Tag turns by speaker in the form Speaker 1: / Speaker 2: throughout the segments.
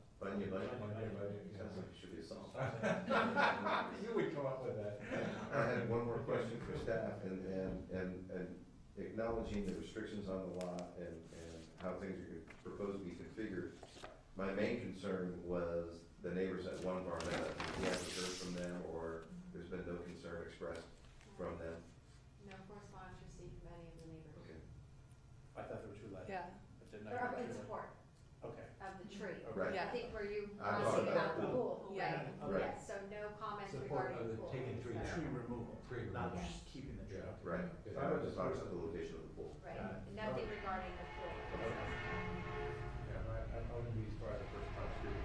Speaker 1: your budget.
Speaker 2: On your budget,
Speaker 1: Sounds like it should be solved.
Speaker 2: You would come up with that.
Speaker 1: I had one more question for staff, and, and, and and acknowledging the restrictions on the lot and, and how things are proposed to be configured, my main concern was the neighbors at one bar, that we haven't heard from them, or there's been no concern expressed from them.
Speaker 3: No correspondence received from any of the neighbors.
Speaker 1: Okay.
Speaker 2: I thought there were two letters.
Speaker 4: Yeah.
Speaker 2: But didn't I
Speaker 3: They're up
Speaker 2: hear
Speaker 3: in
Speaker 2: one?
Speaker 3: support
Speaker 2: Okay.
Speaker 3: of the tree.
Speaker 1: Right.
Speaker 3: I think where you
Speaker 1: I
Speaker 3: want to
Speaker 1: thought
Speaker 3: see
Speaker 1: about
Speaker 3: about the
Speaker 1: that.
Speaker 3: pool, right?
Speaker 4: Yeah.
Speaker 1: Right.
Speaker 3: Yes, so no comments
Speaker 5: Support
Speaker 3: regarding
Speaker 5: of
Speaker 3: the
Speaker 5: the
Speaker 3: pool.
Speaker 5: taking tree
Speaker 3: so-
Speaker 2: Tree removal,
Speaker 5: Tree
Speaker 2: not
Speaker 5: removal.
Speaker 2: just keeping the tree.
Speaker 5: Yeah.
Speaker 2: Okay.
Speaker 1: Right.
Speaker 5: Good.
Speaker 1: I was just talking about the location of the pool.
Speaker 2: Got it.
Speaker 3: Right, nothing regarding the pool.
Speaker 2: Yeah, I, I wouldn't be surprised if there's a tree.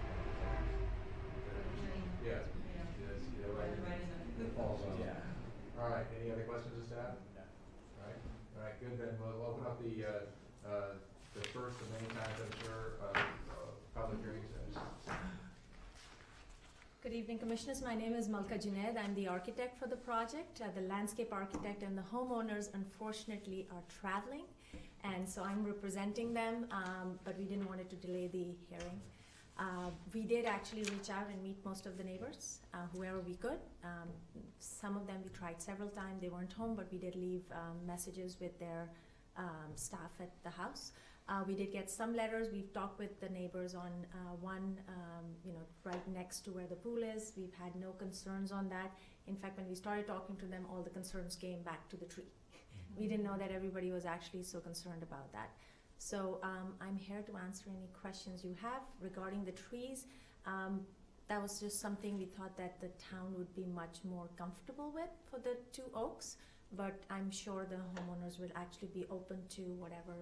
Speaker 5: Yes, yes, yeah, right. It falls on.
Speaker 2: Yeah.
Speaker 5: All right, any other questions of staff?
Speaker 2: Yeah.
Speaker 5: All right, all right, good, then we'll open up the, uh, uh, the first of many times, I'm sure, uh, uh, public hearings.
Speaker 6: Good evening, Commissioners. My name is Malka Junaid. I'm the architect for the project. Uh, The landscape architect and the homeowners unfortunately are traveling, and so I'm representing them, um, but we didn't want it to delay the hearing. Uh, We did actually reach out and meet most of the neighbors, uh, whoever we could. Um, Some of them we tried several times, they weren't home, but we did leave um, messages with their um, staff at the house. Uh, we did get some letters. We've talked with the neighbors on uh, one, um, you know, right next to where the pool is. We've had no concerns on that. In fact, when we started talking to them, all the concerns came back to the tree. we didn't know that everybody was actually so concerned about that. So um, I'm here to answer any questions you have regarding the trees. Um, that was just something we thought that the town would be much more comfortable with for the two oaks, but I'm sure the homeowners will actually be open to whatever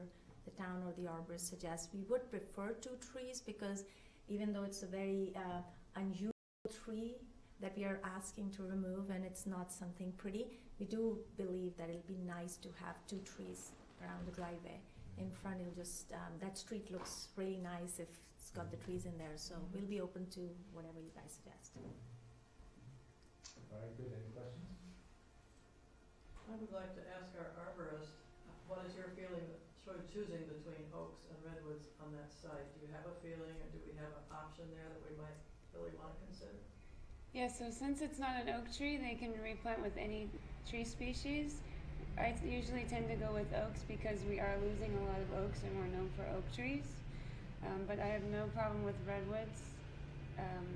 Speaker 6: the town or the arborist suggests. We would prefer two trees because even though it's a very uh, unusual tree that we are asking to remove and it's not something pretty, we do believe that it'll be nice to have two trees around the driveway. In front, it'll just, um, that street looks really nice if it's got the trees in there, so we'll be open to whatever you guys suggest.
Speaker 5: All right, good, any questions?
Speaker 7: I would like to ask our arborist, what is your feeling, sort of choosing between oaks and redwoods on that site? Do you have a feeling, or do we have an option there that we might really want to consider?
Speaker 8: Yeah, so since it's not an oak tree, they can replant with any tree species. I t- usually tend to go with oaks because we are losing a lot of oaks and we're known for oak trees. Um, but I have no problem with redwoods. Um,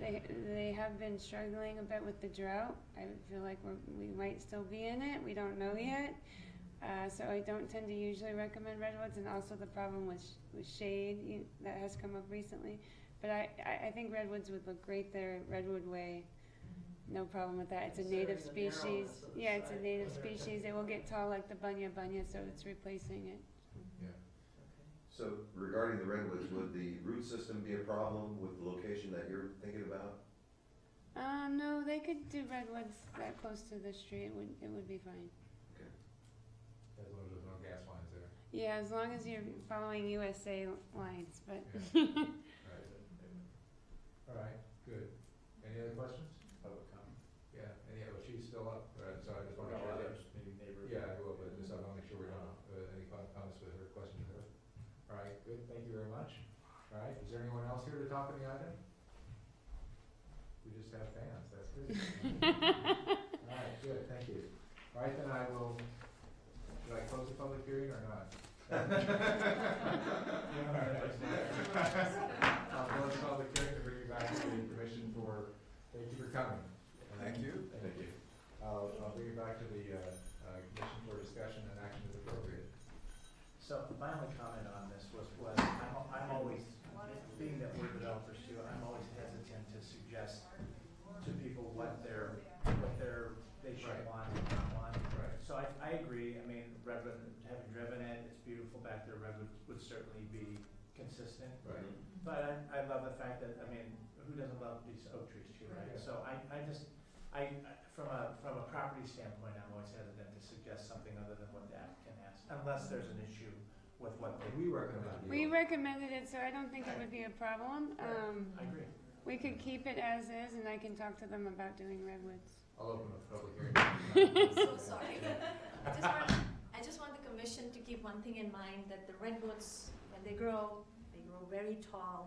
Speaker 8: they, they have been struggling a bit with the drought. I feel like we're, we might still be in it. We don't know yet. Uh, so I don't tend to usually recommend redwoods, and also the problem with, sh- with shade you, that has come up recently. But I, I, I think redwoods would look great there. Redwood Way, no problem with that. It's a native
Speaker 7: Considering the narrowness
Speaker 8: species.
Speaker 7: of the
Speaker 8: Yeah, it's a
Speaker 7: site.
Speaker 8: native species. It will get tall like the bunya bunya, so it's replacing it.
Speaker 5: Yeah.
Speaker 7: Okay.
Speaker 1: So regarding the redwoods, would the root system be a problem with the location that you're thinking about?
Speaker 8: Um, no, they could do redwoods that close to the street. It would, it would be fine.
Speaker 5: As long as there's no gas lines there.
Speaker 8: Yeah, as long as you're following USA lines, but.
Speaker 5: All right. All right, good. Any other questions?
Speaker 2: Public comment.
Speaker 5: Yeah, any, oh, she's still up, All right, so I just
Speaker 2: No
Speaker 5: want to.
Speaker 2: others, maybe neighbors.
Speaker 5: Yeah, I will, but just I want to make sure we don't have any com- comments with her, questions with her. All right, good, thank you very much. All right, is there anyone else here to talk on the item? We just have fans, that's good. All right, good, thank you. All right, then I will, should I close the public hearing or not? I'll close the public hearing to bring you back to the information for, thank you for coming.
Speaker 2: Thank you.
Speaker 5: Thank you. I'll, I'll bring it back to the, uh, uh, commission for discussion and action as appropriate.
Speaker 2: So my only comment on this was, was I'm, I'm always, being that we're developers too, I'm always hesitant to suggest to people what their, what their, they should
Speaker 5: Right.
Speaker 2: want and not want.
Speaker 5: Right.
Speaker 2: So I, I agree, I mean, Redwood, having driven it, it's beautiful back there, Redwood would certainly be consistent.
Speaker 5: Right.
Speaker 1: Mm-hmm.
Speaker 2: But I, I love the fact that, I mean, who doesn't love these oak trees too, right?
Speaker 5: Right.
Speaker 2: So I, I just, I, I- from a, from a property standpoint, I'm always hesitant to suggest something other than what the applicant has, unless there's an issue with what they.
Speaker 5: We recommend you.
Speaker 8: We recommended it, so I don't think it would be a problem. Um,
Speaker 2: I agree.
Speaker 8: we could keep it as is, and I can talk to them about doing redwoods.
Speaker 5: I'll open up the public hearing.
Speaker 6: so Oh, sorry. I just want, I just want the commission to keep one thing in mind, that the redwoods, when they grow, they grow very tall,